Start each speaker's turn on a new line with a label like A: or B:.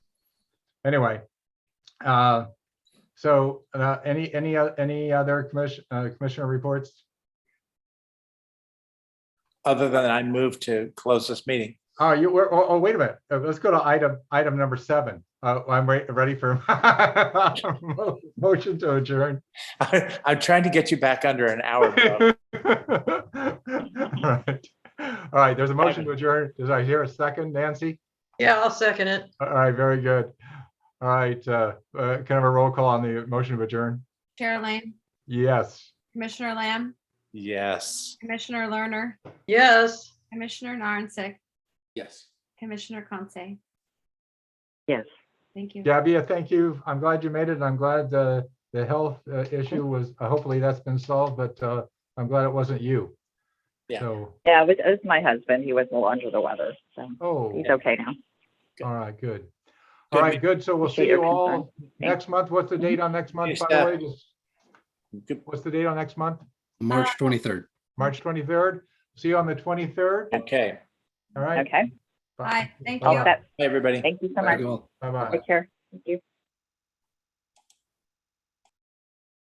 A: anyway. Uh, so, uh, any, any, o- any other commission, uh, commissioner reports?
B: Other than I move to close this meeting.
A: Oh, you were, oh, oh, wait a minute. Uh, Let's go to item, item number seven. Uh, I'm re- ready for mo- motion to adjourn.
B: I'm trying to get you back under an hour. Bob.
A: All right. All right, there's a motion to adjourn. Does I hear a second, Nancy?
C: Yeah, I'll second it.
A: All right, very good. All right, uh, uh, can I have a roll call on the motion to adjourn?
D: Chair Lane,
A: Yes.
D: Commissioner Lamb,
B: Yes.
D: Commissioner Lerner,
C: Yes.
D: Commissioner Narnsick,
B: Yes.
D: Commissioner Conce.
E: Yes.
D: Thank you.
A: Gabby, I thank you. I'm glad you made it. I'm glad the, the health uh, issue was, uh, hopefully that's been solved, but uh, I'm glad it wasn't you.
B: Yeah.
A: So,
E: Yeah, it was, it was my husband. He was a little under the weather, so
A: oh,
E: he's okay now.
A: all right, good.
B: Good
A: All right, good. So we'll see
E: Appreciate
A: you
E: your
A: all next month. What's the date on next month,
B: Yes,
A: by the
B: uh,
A: way? Just-
B: Good-
A: What's the date on next month?
F: March 23rd.
A: March 23rd? See you on the 23rd?
B: Okay.
A: All right.
E: Okay.
D: Bye, thank
A: Bye.
D: you.
E: That-
B: Hey, everybody.
E: Thank you so
F: Thank
E: much.
F: you all.
A: Bye-bye.
E: Take care. Thank you.